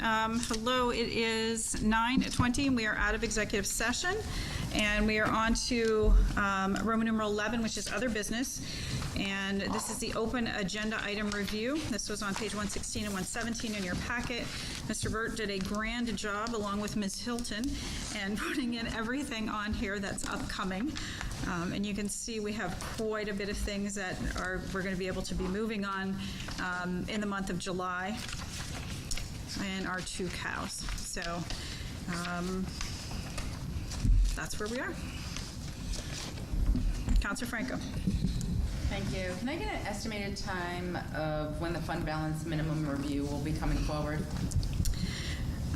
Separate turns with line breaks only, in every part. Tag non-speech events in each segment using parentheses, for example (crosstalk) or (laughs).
Um, Hello, it is 9:20, and we are out of executive session, and we are on to um, Roman numeral 11, which is other business, and this is the open agenda item review. This was on page 116 and 117 in your packet. Mr. Burt did a grand job, along with Ms. Hilton, and (laughs) putting in everything on here that's upcoming. Um, And you can see we have quite a bit of things that are, we're going to be able to be moving on um, in the month of July and our two cows. So um, that's where we are. Counselor Franco.
Thank you. Can I get an estimated time of when the fund balance minimum review will be coming forward?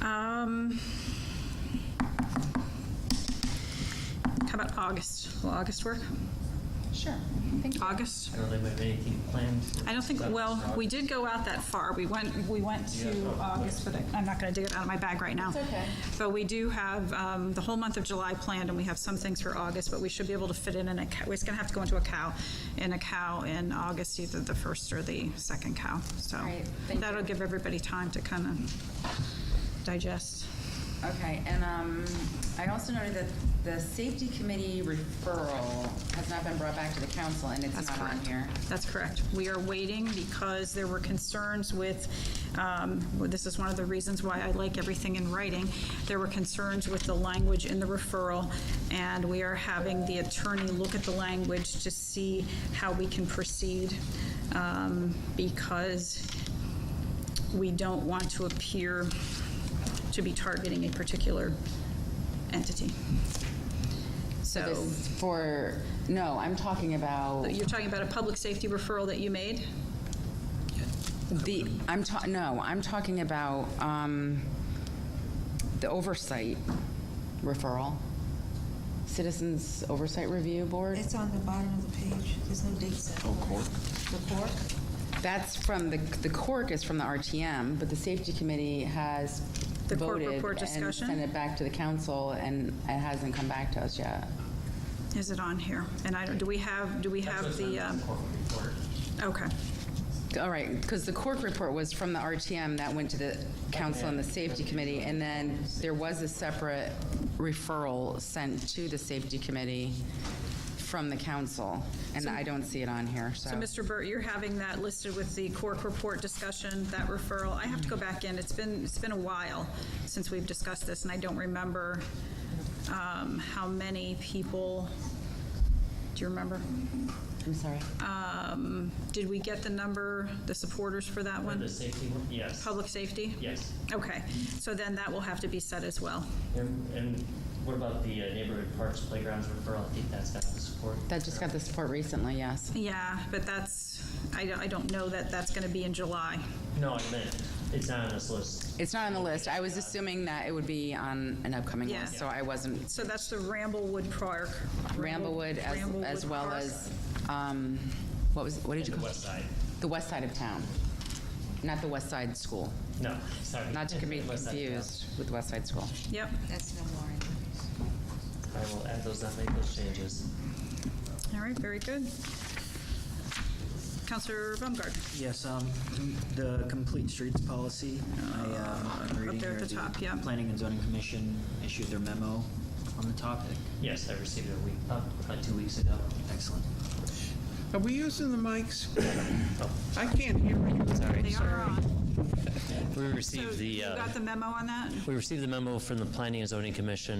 Um, How about August? Will August work?
Sure. Thank you.
August?
I don't think we have anything planned.
I don't think, well, we did go out that far. We went, we went to August, but I- I'm not going to dig it out of my bag right now.
okay.
But we do have um, the whole month of July planned, and we have some things for August, but we should be able to fit in, in a cow. we're just going to have to go into a cow, in a cow in August, either the first or the second cow, so.
right, thank
That'll
you.
give everybody time to kind of digest.
Okay, and um, I also noted that the safety committee referral has not been brought back to the council, and it's
That's
not on
correct.
here.
That's correct. We are waiting because there were concerns with, um, well, this is one of the reasons why I like everything in writing. There were concerns with the language in the referral, and we are having the attorney look at the language to see how we can proceed, um, because we don't want to appear to be targeting a particular entity. So.
This is for, no, I'm talking about
You're talking about a public safety referral that you made?
the, I'm ta, no, I'm talking about um, the oversight referral. Citizens Oversight Review Board?
It's on the bottom of the page. There's no date set. Oh, cork? The cork?
That's from the, the cork is from the RTM, but the safety committee has
The cork
voted
report
and
discussion?
sent it back to the council, and it hasn't come back to us yet.
Is it on here? And I, don't- do we have, do we have the, um, okay.
All right, because the cork report was from the RTM that went to the council and the safety committee, and then there was a separate referral sent to the safety committee from the council, and I don't see it on here, so.
So, Mr. Burt, you're having that listed with the Cork report discussion, that referral. I have to go back in. It's been, it's been a while since we've discussed this, and I don't remember um, how many people, do you remember?
I'm sorry.
Um, Did we get the number, the supporters for that
The
one?
safety one, yes.
Public safety?
Yes.
Okay, so then that will have to be set as well.
And and what about the uh, neighborhood parks playgrounds referral? I think that's got the support.
That just got the support recently, yes.
Yeah, but that's, I don't, I don't know that that's going to be in July.
No, I meant, it's not on this list.
It's not on the list. I was assuming that it would be on an upcoming
Yeah.
list, so I wasn't
So that's the Ramblewood Park.
Ramblewood as, as
Ramblewood
well
Park.
as, um, what was, what did you
In the
call?
west side.
The west side of town, not the west side school.
No, sorry.
Not to be
West side, no.
confused with west side school.
Yep,
That's no more.
I will add those, not make those changes.
all right, very good. Counselor Baumgart,
Yes, um, the complete streets policy, I, um, I'm reading
there
here.
at the top, yeah.
Planning and zoning commission issued their memo on the topic.
Yes, I received it a week, uh, about two weeks ago.
Excellent.
Are we using the mics? I can't hear you.
they are on.
We
So
received
you
the, uh,
got the memo on that?
we received the memo from the Planning and Zoning Commission